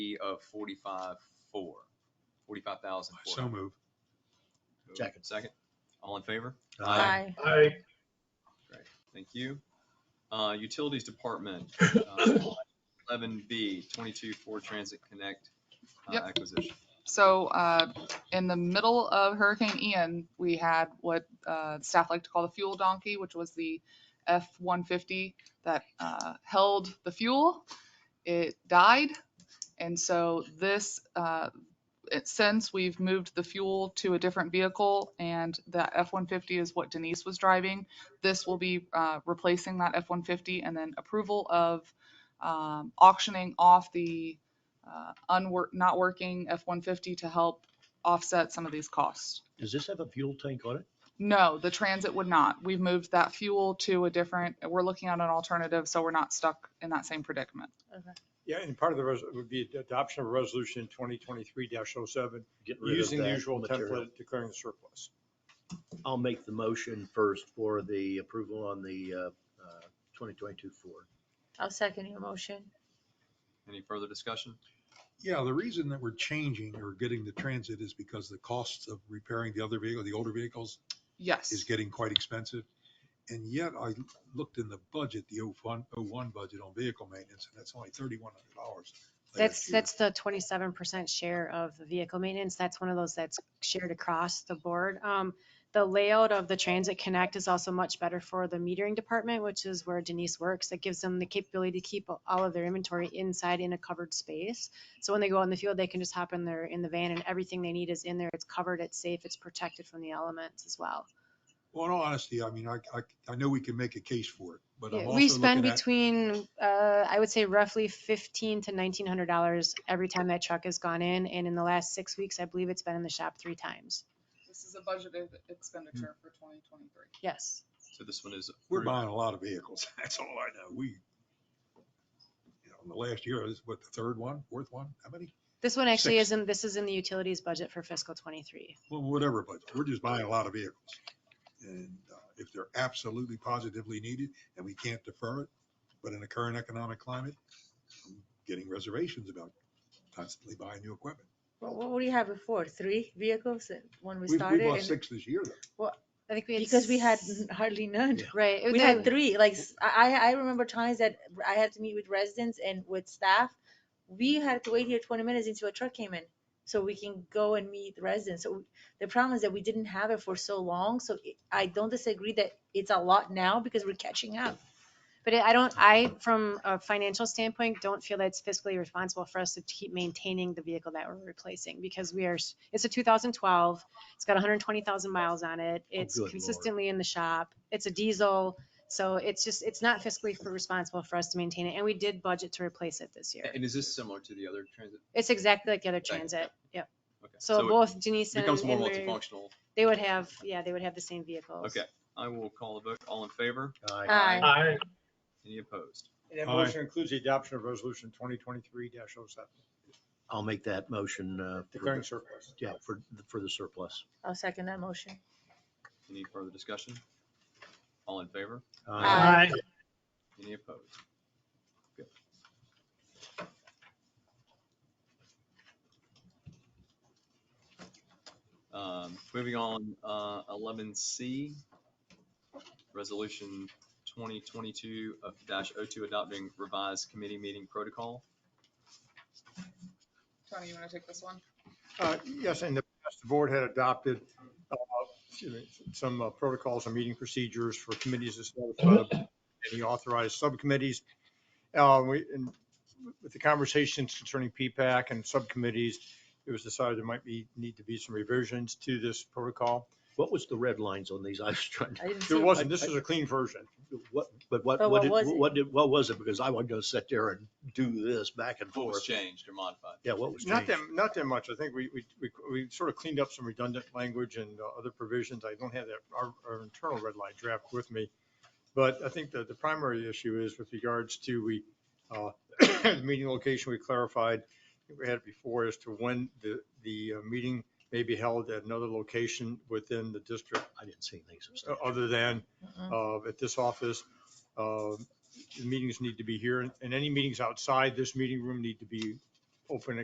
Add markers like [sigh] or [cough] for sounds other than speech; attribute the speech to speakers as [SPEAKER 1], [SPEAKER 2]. [SPEAKER 1] of forty-five, four, forty-five thousand.
[SPEAKER 2] So move.
[SPEAKER 3] Second.
[SPEAKER 1] Second. All in favor?
[SPEAKER 4] Aye.
[SPEAKER 3] Aye.
[SPEAKER 1] Thank you. Uh, Utilities Department, uh, eleven B, twenty-two Ford Transit Connect uh,
[SPEAKER 5] Yep.
[SPEAKER 1] acquisition.
[SPEAKER 5] So uh, in the middle of Hurricane Ian, we had what uh, staff like to call the fuel donkey, which was the F-150 that uh, held the fuel. It died. And so this, uh, it- since we've moved the fuel to a different vehicle and the F-150 is what Denise was driving, this will be uh, replacing that F-150 and then approval of um, auctioning off the uh, unwork, not working F-150 to help offset some of these costs.
[SPEAKER 3] Does this have a fuel tank on it?
[SPEAKER 5] No, the transit would not. We've moved that fuel to a different, we're looking at an alternative, so we're not stuck in that same predicament.
[SPEAKER 6] Yeah, and part of the, res- would be adoption of resolution twenty twenty-three 7
[SPEAKER 3] Get rid of
[SPEAKER 6] using the
[SPEAKER 3] that
[SPEAKER 6] usual
[SPEAKER 3] material.
[SPEAKER 6] template declaring the surplus.
[SPEAKER 3] I'll make the motion first for the approval on the uh, uh, 2022 Ford.
[SPEAKER 4] I'll second your motion.
[SPEAKER 1] Any further discussion?
[SPEAKER 2] Yeah, the reason that we're changing or getting the transit is because the costs of repairing the other vehicle, the older vehicles, is
[SPEAKER 5] Yes,
[SPEAKER 2] getting quite expensive. And yet I looked in the budget, the 01 01 budget on vehicle maintenance, and that's only thirty-one hundred dollars.
[SPEAKER 7] That's, that's the twenty-seven percent share of the vehicle maintenance. That's one of those that's shared across the board. Um, the layout of the Transit Connect is also much better for the metering department, which is where Denise works. That gives them the capability to keep all of their inventory inside in a covered space. So when they go on the field, they can just hop in their, in the van and everything they need is in there. It's covered, it's safe, it's protected from the elements as well.
[SPEAKER 2] Well, in all honesty, I mean, I, I, I know we can make a case for it, but I'm
[SPEAKER 7] Yeah,
[SPEAKER 2] also
[SPEAKER 7] We spend
[SPEAKER 2] looking at,
[SPEAKER 7] between, uh, I would say roughly fifteen to nineteen hundred dollars every time that truck has gone in, and in the last six weeks, I believe it's been in the shop three times.
[SPEAKER 5] this is a budgeted expenditure for 2023.
[SPEAKER 7] Yes.
[SPEAKER 1] So this one is.
[SPEAKER 2] we're
[SPEAKER 1] approved.
[SPEAKER 2] buying a lot of vehicles. [laughs] That's all I know. We, you know, in the last year, this is what, the third one, fourth one? How many?
[SPEAKER 7] This one actually
[SPEAKER 2] Six.
[SPEAKER 7] isn't, this is in the utilities budget for fiscal twenty-three.
[SPEAKER 2] Well, whatever, but we're just buying a lot of vehicles. And uh, if they're absolutely positively needed and we can't defer it, but in the current economic climate, I'm getting reservations about constantly buying new equipment.
[SPEAKER 4] What, what do you have before? Three vehicles that- when we
[SPEAKER 2] We we
[SPEAKER 4] started?
[SPEAKER 2] bought
[SPEAKER 4] and-
[SPEAKER 2] six this year, though.
[SPEAKER 7] I think we had.
[SPEAKER 4] Because we had
[SPEAKER 7] s-
[SPEAKER 4] [laughs] hardly none.
[SPEAKER 7] Right. it
[SPEAKER 4] We
[SPEAKER 7] was-
[SPEAKER 4] had three, like, s- I, I I remember times that I had to meet with residents and with staff. We had to wait here twenty minutes until a truck came in, so we can go and meet residents. So the problem is that we didn't have it for so long, so it- I don't disagree that it's a lot now because we're catching up.
[SPEAKER 7] But it- I don't, I, from a financial standpoint, don't feel that it's fiscally responsible for us to keep maintaining the vehicle that we're replacing because we are, s- it's a 2012. It's got 120,000 miles on
[SPEAKER 1] Oh,
[SPEAKER 7] it. It's
[SPEAKER 3] good lord.
[SPEAKER 7] consistently in the shop. It's a diesel. So it's just, it's not fiscally f- responsible for us to maintain it. And we did budget to replace it this year.
[SPEAKER 1] And is this similar to the other transit?
[SPEAKER 7] It's exactly like the other
[SPEAKER 1] Exactly.
[SPEAKER 7] transit. Yep.
[SPEAKER 1] Okay,
[SPEAKER 7] So
[SPEAKER 1] it
[SPEAKER 7] both Denise and
[SPEAKER 1] Becomes more
[SPEAKER 7] and Mary-
[SPEAKER 1] multifunctional.
[SPEAKER 7] they would have, yeah, they would have the same vehicles.
[SPEAKER 1] Okay, I will call the vote. All in favor?
[SPEAKER 3] Aye.
[SPEAKER 4] Aye.
[SPEAKER 3] Aye.
[SPEAKER 1] Any opposed?
[SPEAKER 6] And that
[SPEAKER 2] Aye.
[SPEAKER 6] motion includes the adoption of resolution twenty twenty-three 7
[SPEAKER 3] I'll make that motion uh, for
[SPEAKER 6] declaring
[SPEAKER 3] the-
[SPEAKER 6] surplus.
[SPEAKER 3] yeah, for, the- for the surplus.
[SPEAKER 4] I'll second that motion.
[SPEAKER 1] Any further discussion? All in favor?
[SPEAKER 3] Aye.
[SPEAKER 1] Any opposed? Good. Um, Moving on, uh, eleven C, resolution twenty twenty-two of dash oh two adopting revised committee meeting protocol.
[SPEAKER 5] Tony, you want to take this one?
[SPEAKER 6] Uh, Yes, in the past, the board had adopted uh, excuse me, some uh, protocols and meeting procedures for committees established by the board and the authorized subcommittees. Uh, we- and With the conversations concerning P-PAC and subcommittees, it was decided there might be, need to be some revisions to this protocol.
[SPEAKER 3] What was the red lines on these? [laughs] I was trying to,
[SPEAKER 4] I didn't see.
[SPEAKER 6] There
[SPEAKER 4] it.
[SPEAKER 6] wasn't, this is a clean version.
[SPEAKER 3] what, but what, what
[SPEAKER 4] But what
[SPEAKER 3] did,
[SPEAKER 4] was it?
[SPEAKER 3] what did, what was it? Because I wasn't going to sit there and do this back and
[SPEAKER 1] What was
[SPEAKER 3] forth.
[SPEAKER 1] changed or modified?
[SPEAKER 3] Yeah, what was
[SPEAKER 6] Not
[SPEAKER 3] changed?
[SPEAKER 6] that, not that much. I think we, we, we- we sort of cleaned up some redundant language and uh, other provisions. I don't have that, our, our internal red line draft with me. But I think that the primary issue is with regards to we, uh, [coughs] the meeting location, we clarified, I think we had it before as to when the, the uh, meeting may be held at another location within the district
[SPEAKER 3] I didn't see anything
[SPEAKER 6] uh,
[SPEAKER 3] substantial.
[SPEAKER 6] other than
[SPEAKER 4] Mm-mm.
[SPEAKER 6] uh, at this office. uh, the Meetings need to be here and- and any meetings outside this meeting room need to be open